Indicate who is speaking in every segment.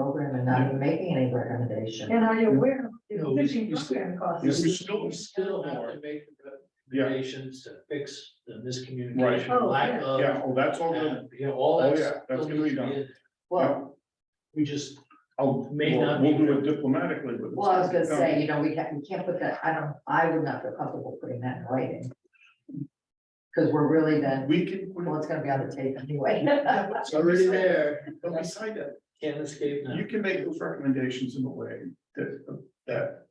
Speaker 1: and not even making any recommendation.
Speaker 2: And are you aware of
Speaker 3: No,
Speaker 2: the
Speaker 3: we-
Speaker 2: fishing
Speaker 3: we still- we
Speaker 2: program costs?
Speaker 3: still, we still have to make
Speaker 4: Yeah,
Speaker 3: recommendations to fix the
Speaker 4: Right.
Speaker 3: miscommunication,
Speaker 2: Oh,
Speaker 3: lack
Speaker 2: yeah.
Speaker 3: of.
Speaker 4: yeah, oh, that's all good.
Speaker 3: and, You know, all
Speaker 4: Oh,
Speaker 3: that's.
Speaker 4: yeah, that's gonna be done.
Speaker 3: Well, we just,
Speaker 4: I'll,
Speaker 3: May
Speaker 4: we'll-
Speaker 3: not
Speaker 4: we'll
Speaker 3: be-
Speaker 4: do it diplomatically, but.
Speaker 1: Well, I was gonna say, you know, we can't, we can't put that, I don't, I would not feel comfortable putting that in writing. Cause we're really then,
Speaker 4: We can,
Speaker 1: well, it's gonna be on the tape anyway.
Speaker 3: it's already there,
Speaker 4: but beside that,
Speaker 3: can't escape now.
Speaker 4: you can make those recommendations in a way that, that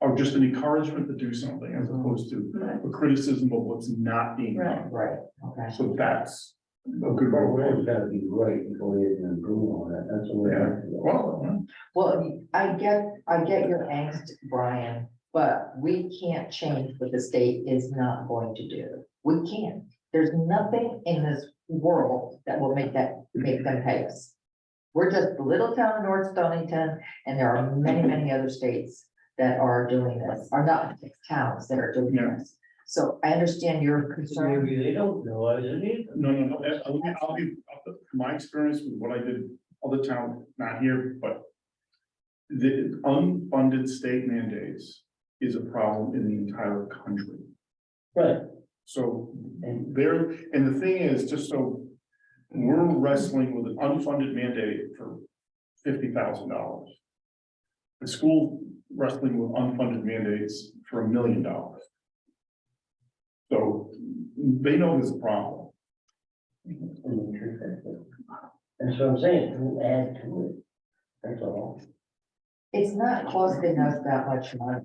Speaker 4: are just an encouragement to do something as opposed to
Speaker 2: Right.
Speaker 4: a criticism of what's not being done.
Speaker 1: Right, okay.
Speaker 4: So that's a good
Speaker 5: Well,
Speaker 4: way.
Speaker 5: it's gotta be right before you can improve on it, that's the way. I feel.
Speaker 4: Well,
Speaker 1: Well, I get, I get your angst, Brian, but we can't change what the state is not going to do. We can't. There's nothing in this world that will make that, make them pay us. We're just the little town of North Stonington, and there are many, many other states that are doing this, are not towns that are doing
Speaker 4: Yeah.
Speaker 1: this. So I understand your concern.
Speaker 3: Maybe they don't know, I didn't either.
Speaker 4: no, no, no, I'll be, I'll be, my experience with what I did, other town, not here, but the unfunded state mandates is a problem in the entire country.
Speaker 3: Right.
Speaker 4: So um, there, and the thing is, just so, we're wrestling with an unfunded mandate for fifty thousand dollars. The school wrestling with unfunded mandates for a million dollars. So they know there's a problem.
Speaker 5: And the truth is that- That's what I'm saying, don't add to it, that's all.
Speaker 1: It's not costing us that much money.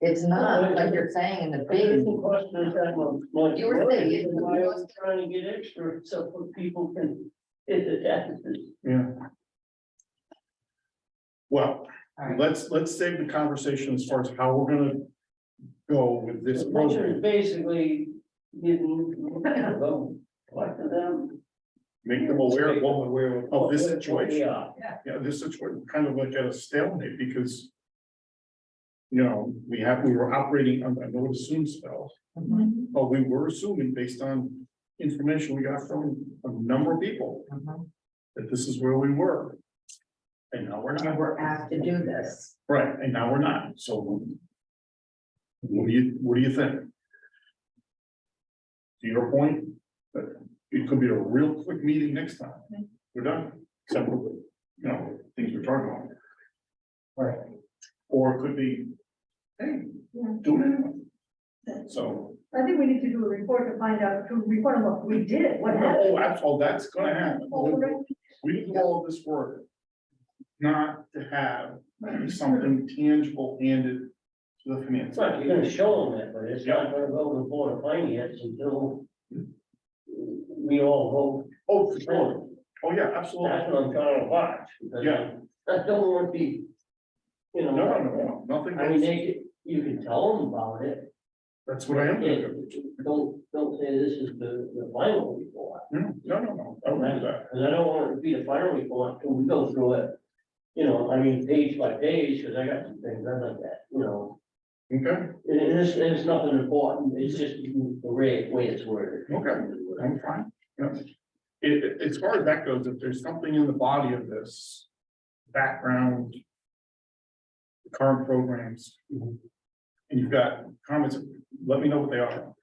Speaker 1: It's not, like you're saying, in the big
Speaker 6: It costs us that much money.
Speaker 1: You were saying it
Speaker 6: Why are we
Speaker 1: costs-
Speaker 6: trying to get extra so for people can hit the deficit?
Speaker 4: Yeah. Well,
Speaker 1: All right.
Speaker 4: let's, let's save the conversation as far as how we're gonna go with this
Speaker 6: The culture is
Speaker 4: program.
Speaker 6: basically getting, like them.
Speaker 4: Make them aware of what
Speaker 3: Well, aware of-
Speaker 4: of this
Speaker 6: what- what we
Speaker 4: situation.
Speaker 6: are.
Speaker 4: Yeah, this is what kind of like at a stalemate because. You know, we have, we were operating on, I know what assume spell, but we were assuming based on information we got from a number of people
Speaker 1: Mhm.
Speaker 4: that this is where we were. And now we're
Speaker 1: And
Speaker 4: not,
Speaker 1: we're asked to do this.
Speaker 4: right, and now we're not, so. What do you, what do you think? To your point, but it could be a real quick meeting next time, we're done, separately, you know, things we're talking about.
Speaker 1: Right.
Speaker 4: Or it could be, hey,
Speaker 2: Yeah.
Speaker 4: do it anyway. So,
Speaker 2: I think we need to do a report to find out, to report on what we did, what happened.
Speaker 4: oh, that's, oh, that's gonna happen.
Speaker 2: Oh, we're gonna-
Speaker 4: We did all of this work not to have something tangible handed to the finance.
Speaker 6: It's like you're gonna show them that, but it's not gonna go to the board of finance until we all
Speaker 4: Oh,
Speaker 6: vote.
Speaker 4: for sure. Oh, yeah, absolutely.
Speaker 6: That's what I'm trying to watch. because
Speaker 4: Yeah.
Speaker 6: I don't want to be, you know.
Speaker 4: No, no, no, no, nothing.
Speaker 6: I mean, they, could- you can tell them about it,
Speaker 4: That's what I am gonna
Speaker 6: Yeah,
Speaker 4: do.
Speaker 6: Don't, don't say this is the, the final report,
Speaker 4: No, no, no, no, I don't do that.
Speaker 6: because I don't want it to be the final report till we go through it. You know, I mean, page by page, because I got some things I like that, you know,
Speaker 4: Okay,
Speaker 6: and and it's, it's nothing important, it's just the way, way it's worded.
Speaker 4: Okay. I'm fine. Yeah. It, it- as far as that goes, if there's something in the body of this background, the current programs, and you've got comments, let me know what they are.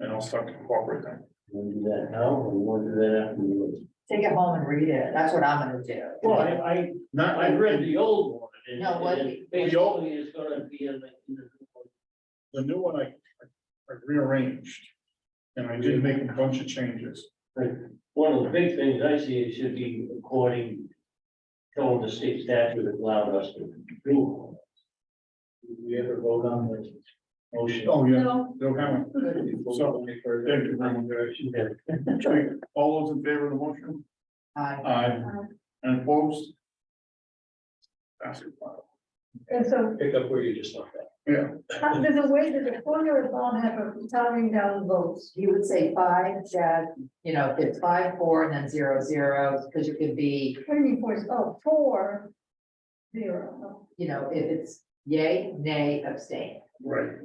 Speaker 4: And I'll start to incorporate them.
Speaker 6: We'll do that now, or we'll do that after we leave.
Speaker 1: Take it home and read it. That's what I'm gonna do.
Speaker 6: Well, I, I,
Speaker 4: Not,
Speaker 6: I read the old one, and,
Speaker 1: No, what-
Speaker 6: and it basically it's gonna be in the. in the-
Speaker 4: The new one I, I rearranged. And I did make a bunch of changes.
Speaker 6: One of the big things I see is should be according to what the state statute allowed us to do.
Speaker 3: Did we ever vote on the motion?
Speaker 4: Oh, yeah,
Speaker 2: No,
Speaker 4: no comment. So, thank you very much. All those in favor of the motion?
Speaker 1: I,
Speaker 4: Aye. And opposed? Pass it.
Speaker 2: and so,
Speaker 3: Pick up where you just left off.
Speaker 4: Yeah,
Speaker 2: how- there's a way, there's a corner of Bob have of counting down votes.
Speaker 1: you would say five, Chad, you know, if it's five, four, and then zero, zero, because it could be,
Speaker 2: What do you mean, four, oh, four, zero.
Speaker 1: you know, if it's yay, nay, abstain.
Speaker 4: right.